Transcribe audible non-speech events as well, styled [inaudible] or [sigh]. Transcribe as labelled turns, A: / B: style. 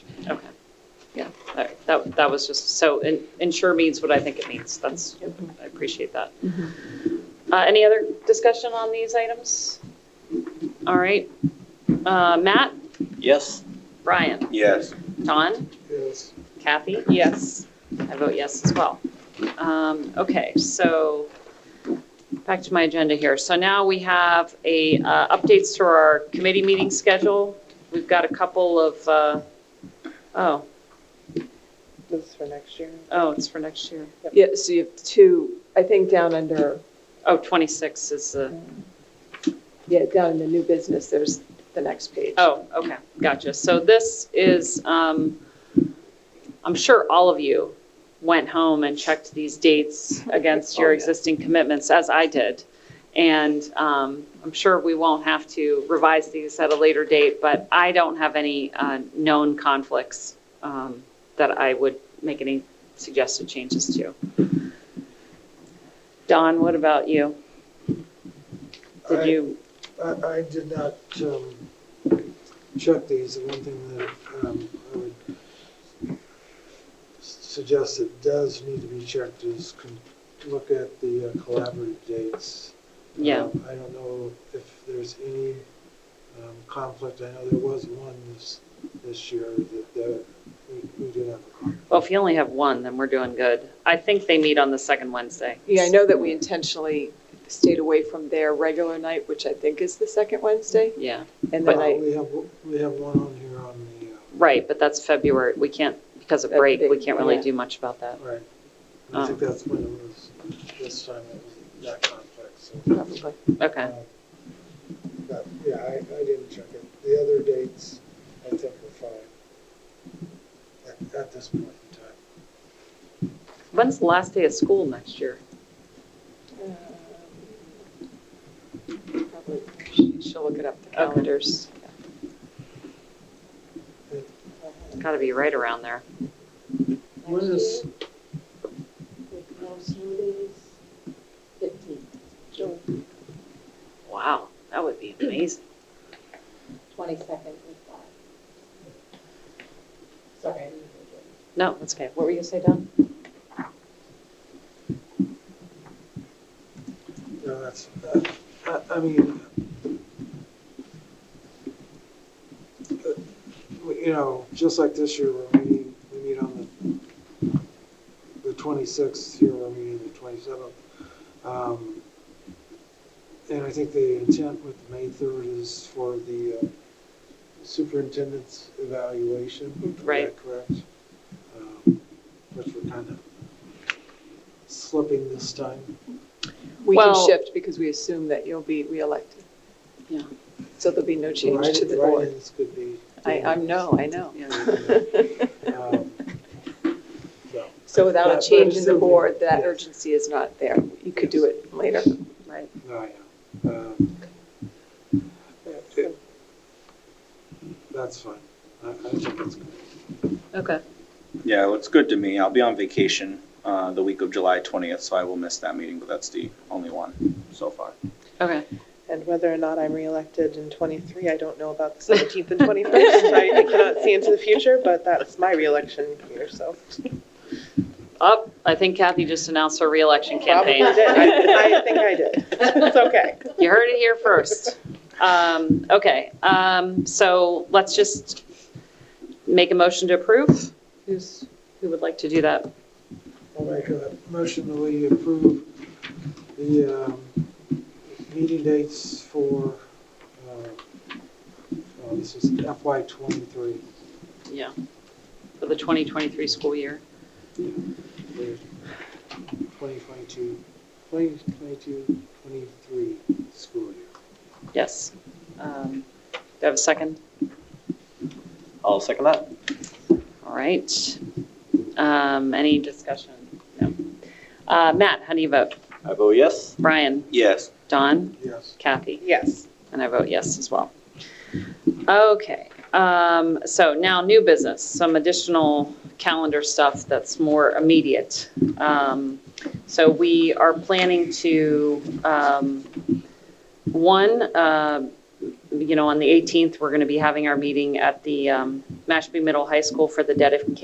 A: All right, That, that was just, so en- ensure means what I think it means. That's, I appreciate that. Uh, Any other discussion on these items? All right. Uh, Matt,
B: Yes.
A: Brian,
C: Yes.
A: Don,
C: Yes.
A: Kathy? Yes. I vote yes as well. Um, Okay, so back to my agenda here. So now we have a, uh, updates to our committee meeting schedule. We've got a couple of, uh, oh,
D: This is for next year.
A: oh, it's for next year.
D: Yeah, so you have two, I think down under,
A: Oh, 26 is the,
D: yeah, down in the new business, there's the next page.
A: oh, okay, gotcha. So this is, um, I'm sure all of you went home and checked these dates against
D: Oh,
A: your
D: yeah.
A: existing commitments, as I did. And um, I'm sure we won't have to revise these at a later date, but I don't have any uh, known conflicts um, that I would make any suggested changes to. Don, what about you? Did
E: I-
A: you,
E: I, I did not um, check these. The one thing that um, I would s- suggest that does need to be checked is con- look at the uh, collaborative dates.
A: yeah,
E: Um, I don't know if there's any um, conflict. I know there was one this, this year that, that we, we did have a conflict.
A: well, if you only have one, then we're doing good. I think they meet on the second Wednesday.
D: Yeah, I know that we intentionally stayed away from their regular night, which I think is the second Wednesday,
A: Yeah.
D: and
E: Uh,
D: then I,
E: We have, o- we have one on here on the, uh,
A: Right, but that's February. We can't, because of
D: That's
A: break, we
D: big,
A: can't really
D: yeah.
A: do much about that.
E: uh, right. I think
D: Oh.
A: Um.
E: that's when it was, this time it was that conflict, so.
D: probably,
A: Okay,
E: Uh, But, yeah, I, I didn't check it. The other dates, I think were fine at, at this point in time.
A: when's the last day of school next year?
D: probably, she- she'll look it up, the calendars.
A: It's Got to be right around there.
E: When is,
F: With no smoothies, fifteen, June
A: Wow, that would be amazing.
F: twenty-second is five. Sorry. I didn't hear you.
A: No, that's okay. What were you gonna say, Don?
E: no, that's, uh, I, I mean, uh, we- you know, just like this year, we're meeting, we meet on the, the twenty-sixth, here we're meeting the twenty-seventh. Um, And I think the intent with May third is for the uh, superintendent's evaluation. Is that
A: Right.
E: Correct. Um, Which we're kind of slipping this time.
D: We can
A: Well-
D: shift because we assume that you'll be reelected.
A: Yeah.
D: So there'll be no change to
E: Write-
D: the board.
E: Write-ins could be.
D: I, I know, I
A: [laughs]
D: know.
A: Yeah.
D: [laughs]
E: Um, no.
D: So without
E: Yeah,
D: a
E: but
D: change in the
E: still-
D: board, that
E: yes.
D: urgency is not there. You could do it later.
A: Right.
E: No, I know. Um, it- it- That's fine. I, I think that's good.
A: Okay.
C: Yeah, it looks good to me. I'll be on vacation uh, the week of July 20th, so I will miss that meeting, but that's the only one so far.
A: Okay.
G: And whether or not I'm reelected in 23, I don't know about the 17th and 21st. I I cannot see into the future, but that's my reelection year, so.
A: Up. Oh, I think Kathy just announced her reelection
G: Probably
A: campaign.
G: did. I I think I did. It's okay.
A: You heard it here first. Um, okay, um, so let's just make a motion to approve. Who's, who would like to do that?
E: I'll make a motion that we approve the um, meeting dates for, uh, oh, this is FY twenty-three.
A: Yeah. For the 2023 school year.
E: Twenty twenty-two, twenty twenty-two, twenty-three school year.
A: Yes. Um, Do I have a second?
B: I'll second that.
A: All right. Um, Any discussion? No. Uh, Matt, how do you vote?
B: I vote yes.
A: Brian,
C: Yes.
A: Don,
E: Yes.
A: Kathy,
G: Yes.
A: and I vote yes as well. Okay, um, so now new business, some additional calendar stuff that's more immediate. Um, So we are planning to, um, one, uh, um, you know, on the 18th, we're going to be having our meeting at the um, Mashpee Middle High School for the dedication